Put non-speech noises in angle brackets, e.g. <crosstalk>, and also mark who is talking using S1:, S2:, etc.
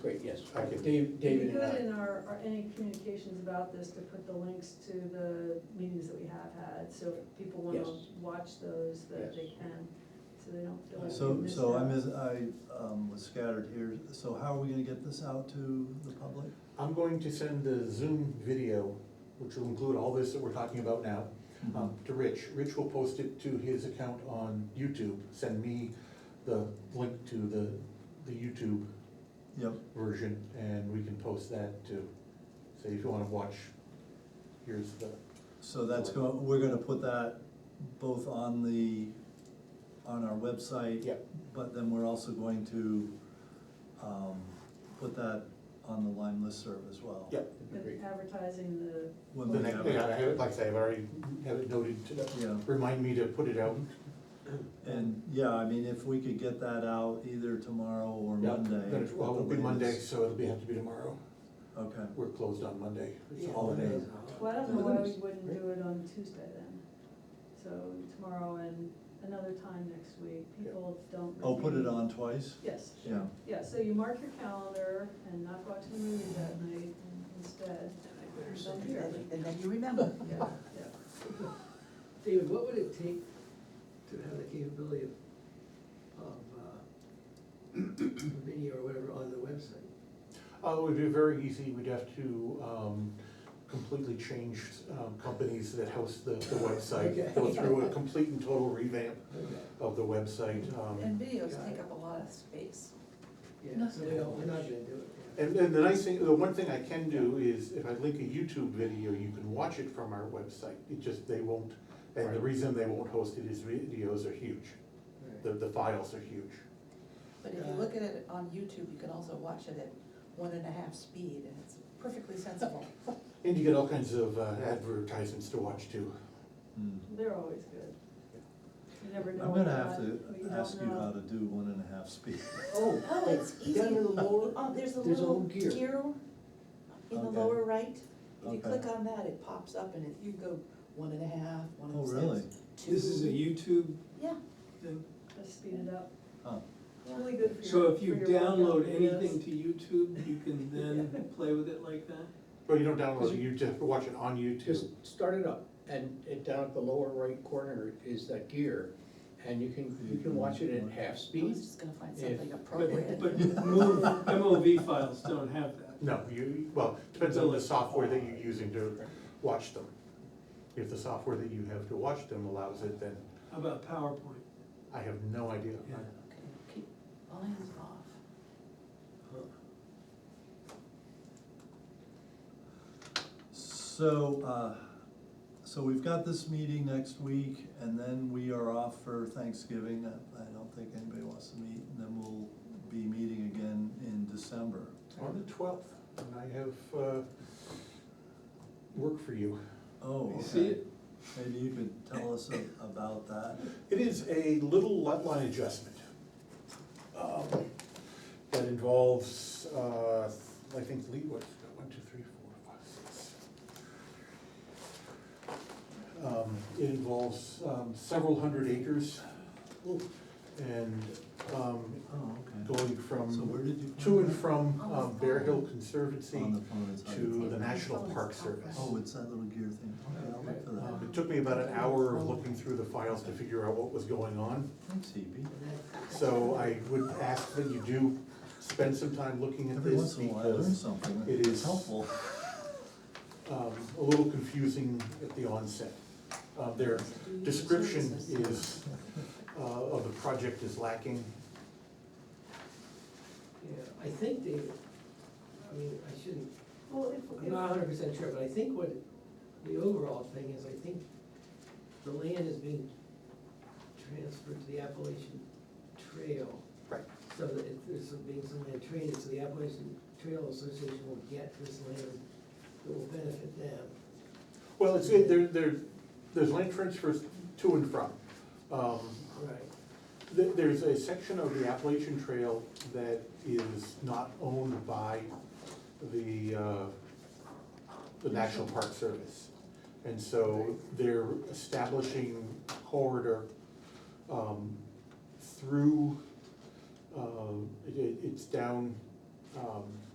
S1: Thank you.
S2: Dave-
S3: It'd
S2: David and
S3: be good
S2: I.
S3: in our, our, any communications about this to put the links to the meetings that we have had, so if people wanna
S2: Yes.
S3: watch those, that
S2: Yes.
S3: they can, so they don't feel like they
S4: So,
S3: missed
S4: so I
S3: out.
S4: miss, I, um, was scattered here, so how are we gonna get this out to the public?
S1: I'm going to send the Zoom video, which will include all this that we're talking about now,
S4: Mm-hmm.
S1: um, to Rich. Rich will post it to his account on YouTube, send me the link to the, the YouTube
S4: Yep,
S1: version, and we can post that too. So if you wanna watch, here's the,
S4: so that's go, we're gonna put that both on the, on our website.
S1: Yep.
S4: But then we're also going to, um, put that on the Lime listserv as well.
S1: yeah,
S3: But
S1: great.
S3: Advertising the,
S4: When
S1: The
S4: we
S1: next,
S4: have
S1: yeah, I
S4: it,
S1: have it, like I say, I've already have it noted to,
S4: Yeah.
S1: remind me to put it out.
S4: and, yeah, I mean, if we could get that out either tomorrow or
S1: Yeah,
S4: Monday.
S1: then it's- Well,
S4: at the
S1: it'll be Monday,
S4: latest.
S1: so it'll be, have to be tomorrow.
S4: Okay,
S1: We're closed on Monday, it's a
S5: Yeah.
S1: holiday.
S3: well, I don't know
S4: Yeah,
S3: why
S4: that
S3: we
S4: is
S3: wouldn't do it on Tuesday then, so tomorrow and another time next week, people don't.
S4: I'll Oh, put it
S3: really-
S4: on twice,
S3: Yes,
S4: yeah.
S3: yeah, so you mark your calendar and not watch the movie that night instead,
S5: Or
S3: Then
S5: something,
S3: here.
S5: And then- and then you remember.
S3: yeah, yeah.
S5: David, what would it take to have the capability of, of, uh, <coughs> video or whatever on the website?
S1: Uh, it would be very easy, we'd have to, um, completely change, um, companies that host the, the website.
S5: Okay.
S1: Go through a complete and total revamp
S5: Okay.
S1: of the website, um.
S6: And videos
S1: yeah.
S6: take up a lot of space.
S5: Yeah, so we don't, we're not gonna do it. yeah.
S1: And, and the nice thing, the one thing I can do is if I link a YouTube video, you can watch it from our website. It just, they won't, and the
S5: Right.
S1: reason they won't host it is videos are huge.
S5: Right.
S1: The, the files are huge.
S6: But if you look at it on YouTube, you can also watch it at one and a half speed, and it's perfectly sensible.
S1: And you get all kinds of uh, advertisements to watch too.
S4: Hmm.
S3: They're always good. You never know.
S4: I'm gonna
S3: what
S4: have
S3: you
S4: to
S3: got, what don't
S4: ask you
S3: know.
S4: how to do one and a half speed.
S5: Oh.
S6: Oh, it's
S5: like, Down
S6: easy.
S5: in the lower.
S6: Oh, there's a
S5: There's a
S6: little
S5: little gear.
S6: gear in the
S4: Okay.
S6: lower right. If you
S4: Okay.
S6: click on that, it pops up and it, you go one and a half, one
S4: Oh,
S6: and
S4: really?
S6: six, two.
S7: This is a YouTube
S6: Yeah,
S7: thing,
S3: Just speed it up.
S4: Oh,
S3: It's really good for your.
S7: so if you
S3: for your workout
S7: download
S3: videos.
S7: anything to YouTube, you can then play with it like that?
S1: But you don't download it, you just watch it on YouTube.
S8: Just start it up, and it, down at the lower right corner is that gear, and you can, you can watch it at half
S6: I
S8: speed.
S6: was just gonna find
S8: If-
S6: something appropriate.
S7: But, but move- MOV files don't have that.
S1: No, you, well, depends on the software that you're using to watch them. If the software that you have to watch them allows it, then
S7: How about PowerPoint?
S1: I have no idea.
S7: Yeah.
S6: Okay, keep, all hands off.
S4: So, uh, so we've got this meeting next week, and then we are off for Thanksgiving. I- I don't think anybody wants to meet, and then we'll be meeting again in December.
S1: On the twelfth, and I have, uh, work for you.
S4: Oh,
S7: You see
S4: okay.
S7: it?
S4: Maybe you could tell us a- about that.
S1: It is a little lot line adjustment. um, That involves, uh, I think, Lee, what, one, two, three, four, five, six. Um, It involves um, several hundred acres. And um,
S4: Oh, okay.
S1: going
S4: So
S1: from,
S4: where did you?
S1: to
S4: find
S1: and
S4: that?
S1: from um, Bear Hill
S4: On
S1: Conservancy
S4: the phone, it's hard
S1: to the
S4: find.
S1: National Park Service.
S4: Oh, it's that little gear thing. Okay, I'll look for
S1: Um,
S4: that.
S1: It took me about an hour of looking through the files to figure out what was going on.
S4: Thanks, Hebe.
S1: So I would ask that you do spend some time looking at
S4: Every
S1: this
S4: once in a while, I learn
S1: because
S4: something.
S1: it
S4: It's
S1: is-
S4: helpful.
S1: um, a little confusing at the onset. Uh, Their description is, uh, of the project is lacking.
S5: Yeah, I think David, I mean, I shouldn't,
S3: Well,
S5: I'm not
S3: if,
S5: hundred percent sure, but I think what, the overall thing is, I think the land is being transferred to the Appalachian Trail.
S1: Right.
S5: So that if there's some- being some land traded, so the Appalachian Trail Association will get this land that will benefit them.
S1: Well, it's, it- there, there, there's land transfers to and from. Um,
S5: Right.
S1: Th- There's a section of the Appalachian Trail that is not owned by the, uh, the National Park Service. And so they're establishing corridor um, uh, through, um, it- it- it's down um,